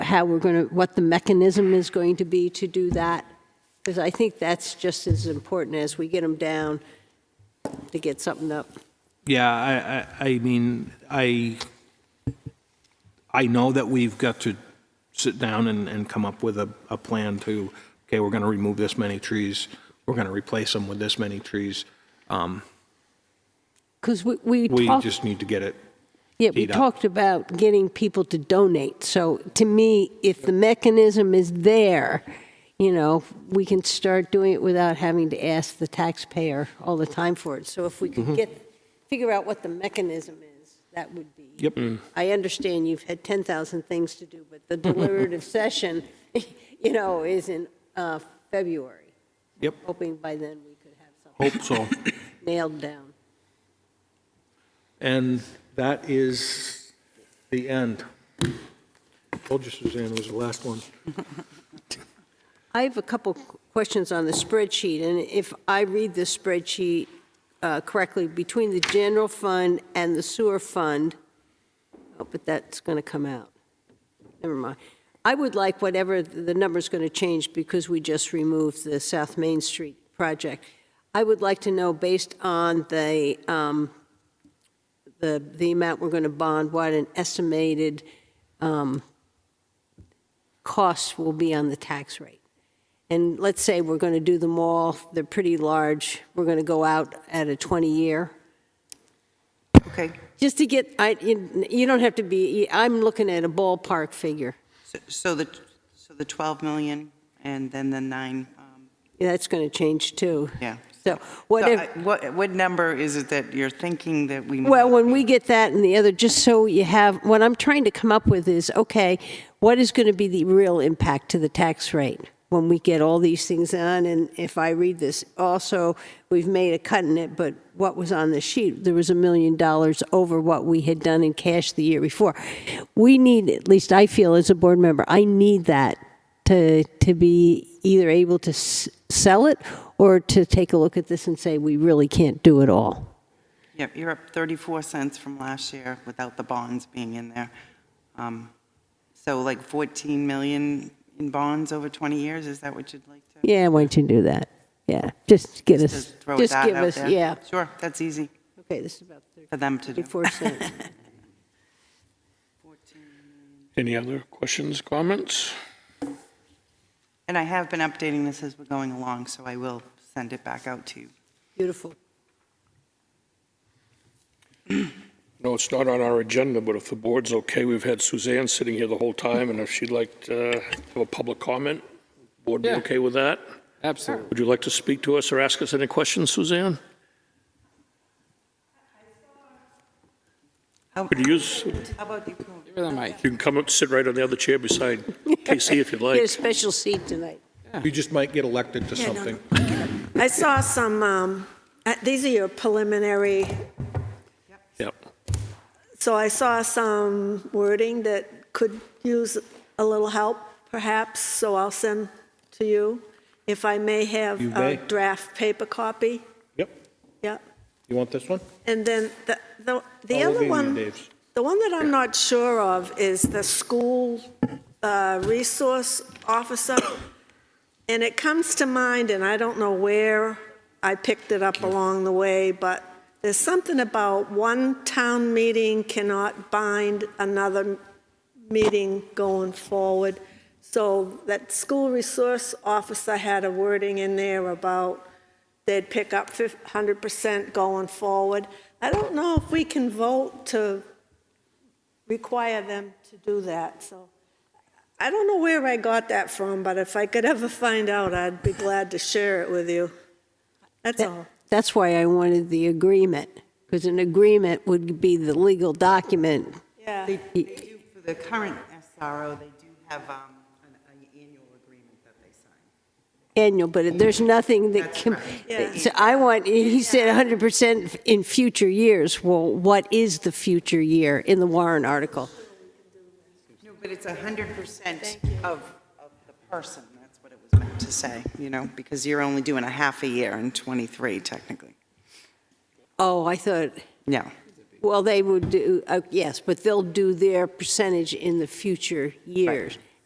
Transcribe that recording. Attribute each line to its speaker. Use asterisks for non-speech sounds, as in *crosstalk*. Speaker 1: how we're going to, what the mechanism is going to be to do that? Because I think that's just as important as we get them down to get something up.
Speaker 2: Yeah, I, I, I mean, I, I know that we've got to sit down and, and come up with a, a plan to, okay, we're gonna remove this many trees, we're gonna replace them with this many trees.
Speaker 1: Because we, we
Speaker 2: We
Speaker 1: talked.
Speaker 2: just need to get it,
Speaker 1: Yeah, we
Speaker 2: teed up.
Speaker 1: talked about getting people to donate. So to me, if the mechanism is there, you know, we can start doing it without having to ask the taxpayer all the time for it. So if we
Speaker 2: Mm-hmm.
Speaker 1: could get, figure out what the mechanism is, that would be.
Speaker 2: Yep.
Speaker 1: I understand you've had 10,000 things to do, but the deliberative session, *laughs* you know, is in uh, February.
Speaker 2: Yep.
Speaker 1: Hoping by then we could have something
Speaker 2: hope so.
Speaker 1: nailed down.
Speaker 2: And that is the end. Told you Suzanne was the last one.
Speaker 1: I have a couple questions on the spreadsheet, and if I read this spreadsheet uh, correctly, between the general fund and the sewer fund, oh, but that's going to come out. Never mind. I would like whatever, the number's going to change because we just removed the South Main Street project. I would like to know, based on the, um, the, the amount we're going to bond, what an estimated um, cost will be on the tax rate. And let's say we're going to do them all, they're pretty large, we're going to go out at a 20-year,
Speaker 3: Okay,
Speaker 1: just to get, I, you you don't have to be, I'm looking at a ballpark figure.
Speaker 3: so- so the, so the 12 million and then the nine, um,
Speaker 1: That's going to change too.
Speaker 3: yeah.
Speaker 1: So
Speaker 3: So I-
Speaker 1: whatever,
Speaker 3: What, what number is it that you're thinking that we?
Speaker 1: well, when we get that and the other, just so you have, what I'm trying to come up with is, okay, what is going to be the real impact to the tax rate when we get all these things on? And if I read this, also, we've made a cut in it, but what was on the sheet, there was a million dollars over what we had done in cash the year before. We need, at least I feel as a board member, I need that to, to be either able to s- sell it or to take a look at this and say, we really can't do it all.
Speaker 3: Yep, you're up 34 cents from last year without the bonds being in there. Um, So like 14 million in bonds over 20 years, is that what you'd like to?
Speaker 1: Yeah, why don't you do that? Yeah, just get
Speaker 3: to
Speaker 1: us,
Speaker 3: throw
Speaker 1: just
Speaker 3: that
Speaker 1: give
Speaker 3: out
Speaker 1: us,
Speaker 3: there?
Speaker 1: yeah.
Speaker 3: Sure, that's easy
Speaker 1: Okay, this is about
Speaker 3: for them to do.
Speaker 1: 34 cents.
Speaker 4: Any other questions, comments?
Speaker 3: And I have been updating this as we're going along, so I will send it back out to you.
Speaker 1: Beautiful.
Speaker 4: No, it's not on our agenda, but if the board's okay, we've had Suzanne sitting here the whole time, and if she'd like uh, to have a public comment, board be
Speaker 5: Yeah.
Speaker 4: okay with that?
Speaker 5: Absolutely.
Speaker 4: Would you like to speak to us or ask us any questions, Suzanne?
Speaker 3: How-
Speaker 4: Could you use,
Speaker 3: How about you? Paul?
Speaker 5: Give her the mic.
Speaker 4: you can come up, sit right on the other chair beside Casey if you'd
Speaker 1: Get a
Speaker 4: like.
Speaker 1: special seat tonight.
Speaker 2: You just might get elected to
Speaker 6: Yeah, no,
Speaker 2: something.
Speaker 6: I saw some, um, uh, these are your preliminary,
Speaker 4: Yep.
Speaker 6: so I saw some wording that could use a little help perhaps, so I'll send to you. If I may have
Speaker 2: You may.
Speaker 6: a draft paper copy,
Speaker 2: Yep.
Speaker 6: yeah.
Speaker 2: You want this one?
Speaker 6: And then the, the the
Speaker 2: All over
Speaker 6: other
Speaker 2: you,
Speaker 6: one.
Speaker 2: Dave's.
Speaker 6: The one that I'm not sure of is the school uh, resource officer, and it comes to mind, and I don't know where I picked it up along the way, but there's something about one town meeting cannot bind another meeting going forward. So that school resource officer had a wording in there about they'd pick up 100% going forward. I don't know if we can vote to require them to do that, so. I don't know where I got that from, but if I could ever find out, I'd be glad to share it with you. That's all.
Speaker 1: That's why I wanted the agreement, because an agreement would be the legal document.
Speaker 6: Yeah.
Speaker 3: They they do, for the current SRO, they do have um, an an annual agreement that they sign.
Speaker 1: Annual, but there's nothing that
Speaker 3: That's
Speaker 1: can,
Speaker 3: right.
Speaker 6: Yeah.
Speaker 1: so I want, he said 100% in future years. Well, what is the future year in the Warren article?
Speaker 3: No, but it's 100% of, of the person, that's what it was meant to say, you know, because you're only doing a half a year in '23 technically.
Speaker 1: Oh, I thought,
Speaker 3: Yeah,
Speaker 1: oh, Well, they would do, uh, yes, but they'll do their percentage in the future years.